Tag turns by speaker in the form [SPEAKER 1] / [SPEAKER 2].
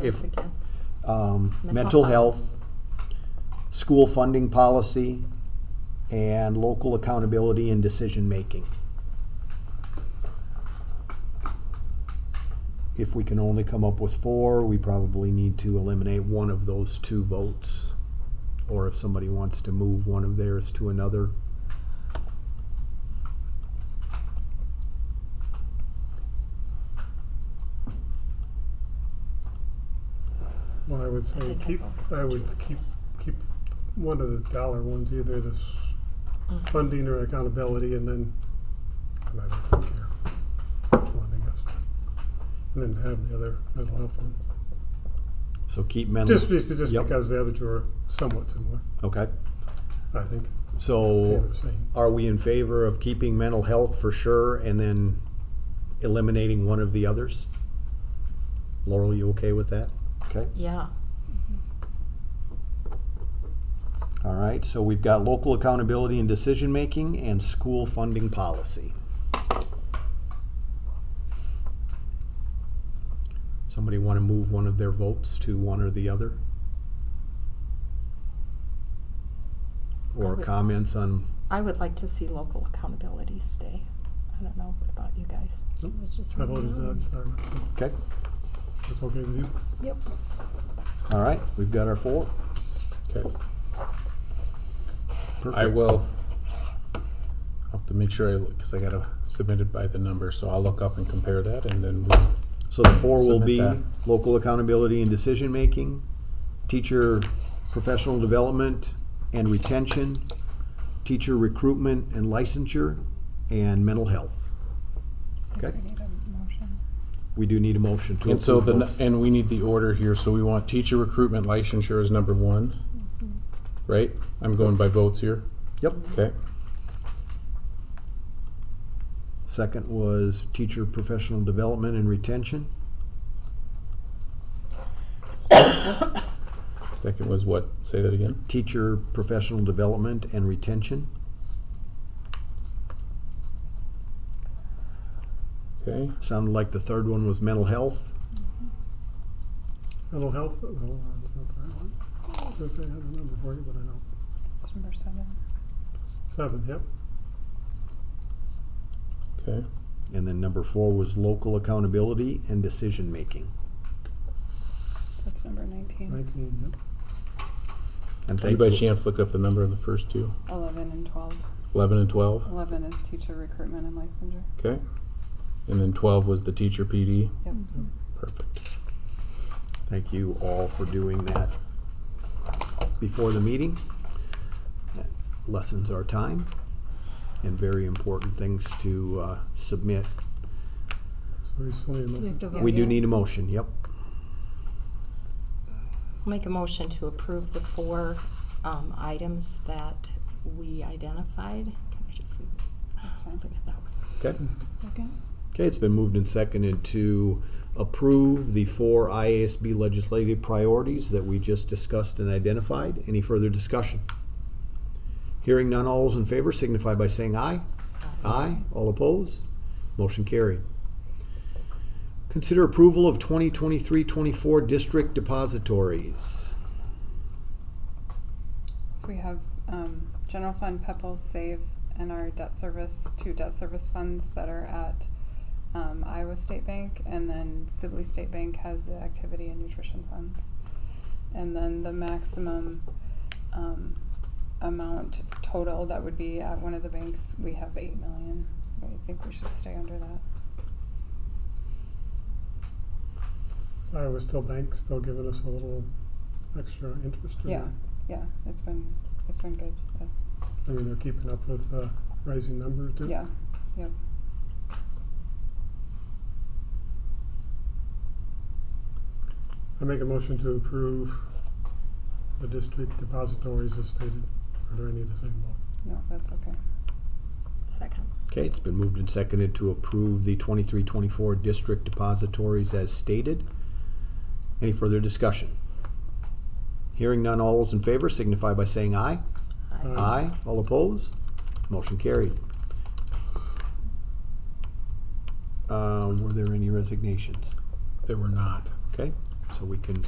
[SPEAKER 1] If-
[SPEAKER 2] those again.
[SPEAKER 1] um,
[SPEAKER 2] Mental
[SPEAKER 1] mental
[SPEAKER 2] health.
[SPEAKER 1] health, school funding policy, and local accountability and decision-making. If we can only come up with four, we probably need to eliminate one of those two votes. Or if somebody wants to move one of theirs to another.
[SPEAKER 3] Well, I would say
[SPEAKER 2] think I
[SPEAKER 3] keep,
[SPEAKER 2] voted
[SPEAKER 3] I would keep, keep one of the dollar ones, either this
[SPEAKER 2] Mm-hmm.
[SPEAKER 3] funding or accountability, and then, and I don't care which one, I guess. And then have the other mental health one.
[SPEAKER 1] So keep mental,
[SPEAKER 3] Just, be- just
[SPEAKER 1] Mm-hmm. Yep.
[SPEAKER 3] because the other two are somewhat similar,
[SPEAKER 1] okay?
[SPEAKER 3] I think,
[SPEAKER 1] So.
[SPEAKER 3] they're the same.
[SPEAKER 1] Are we in favor of keeping mental health for sure and then eliminating one of the others? Laurel, you okay with that? Okay,
[SPEAKER 2] Yeah,
[SPEAKER 1] all right, so we've got local accountability and decision-making and school funding policy. Somebody want to move one of their votes to one or the other? Or comments on,
[SPEAKER 2] I would like to see local accountability stay. I don't know, what about you guys?
[SPEAKER 3] I voted
[SPEAKER 2] Mm-hmm.
[SPEAKER 3] to start with, so
[SPEAKER 1] okay,
[SPEAKER 3] that's okay with you?
[SPEAKER 2] Yep.
[SPEAKER 1] all right, we've got our four.
[SPEAKER 4] Okay, I
[SPEAKER 1] Perfect.
[SPEAKER 4] will I'll have to make sure I look, because I got to submit it by the number, so I'll look up and compare that and then we-
[SPEAKER 1] So the four will
[SPEAKER 4] Submit
[SPEAKER 1] be
[SPEAKER 4] that.
[SPEAKER 1] local accountability and decision-making, teacher professional development and retention, teacher recruitment and licensure, and mental health. Okay? We do need a motion to
[SPEAKER 4] and so
[SPEAKER 1] approve
[SPEAKER 4] the, n-
[SPEAKER 1] those.
[SPEAKER 4] and we need the order here, so we want teacher recruitment licensure is number one, right? I'm going by votes here,
[SPEAKER 1] Yep,
[SPEAKER 4] okay?
[SPEAKER 1] second was teacher professional development and retention,
[SPEAKER 4] Second was what? Say that again?
[SPEAKER 1] teacher professional development and retention,
[SPEAKER 4] Okay,
[SPEAKER 1] sounded like the third one was mental health,
[SPEAKER 3] Mental health, no, that's not the right one. I was gonna say I had a number for you, but I don't.
[SPEAKER 5] Number seven.
[SPEAKER 3] Seven, yep.
[SPEAKER 4] okay,
[SPEAKER 1] and then number four was local accountability and decision-making.
[SPEAKER 5] That's number 19.
[SPEAKER 3] Nineteen, yep.
[SPEAKER 1] And
[SPEAKER 4] did you
[SPEAKER 1] thank
[SPEAKER 4] by
[SPEAKER 1] you.
[SPEAKER 4] chance look up the number of the first two?
[SPEAKER 5] 11 and 12.
[SPEAKER 4] Eleven and twelve,
[SPEAKER 5] 11 is teacher recruitment and licensure.
[SPEAKER 4] okay? And then twelve was the teacher PD,
[SPEAKER 5] Yep.
[SPEAKER 4] perfect.
[SPEAKER 1] Thank you all for doing that before the meeting. That Lessens our time and very important things to uh, submit.
[SPEAKER 3] So we still need a
[SPEAKER 2] We
[SPEAKER 3] motion.
[SPEAKER 2] have to vote.
[SPEAKER 1] We do
[SPEAKER 2] yeah.
[SPEAKER 1] need a motion, yep.
[SPEAKER 2] Make a motion to approve the four um, items that we identified. Can I just leave?
[SPEAKER 5] That's fine.
[SPEAKER 2] leave it that way?
[SPEAKER 1] Okay.
[SPEAKER 5] Second.
[SPEAKER 1] Okay, it's been moved and seconded to approve the four IASB legislative priorities that we just discussed and identified. Any further discussion? Hearing none, all those in favor signify by saying aye. Aye. All opposed? Motion carried. Consider approval of 2023-24 district depositories.
[SPEAKER 5] So we have um, general fund, PEPAL, SAVE, and our debt service, two debt service funds that are at um, Iowa State Bank, and then Sibley State Bank has the activity and nutrition funds. And then the maximum um, amount total that would be at one of the banks, we have 8 million. I think we should stay under that.
[SPEAKER 3] So Iowa still bank, still giving us a little extra interest. or-
[SPEAKER 5] Yeah, yeah, it's been, it's been good, yes,
[SPEAKER 3] I mean, they're keeping up with uh, rising numbers. too.
[SPEAKER 5] yeah, yep.
[SPEAKER 3] I make a motion to approve the district depositories as stated. Or do I need to say more?
[SPEAKER 5] No, that's okay.
[SPEAKER 2] Second.
[SPEAKER 1] Okay, it's been moved and seconded to approve the 23-24 district depositories as stated. Any further discussion? Hearing none, all those in favor signify by saying aye.
[SPEAKER 3] Aye.
[SPEAKER 1] Aye. All opposed? Motion carried. Uh, Were there any resignations?
[SPEAKER 4] They were not.
[SPEAKER 1] Okay, so we can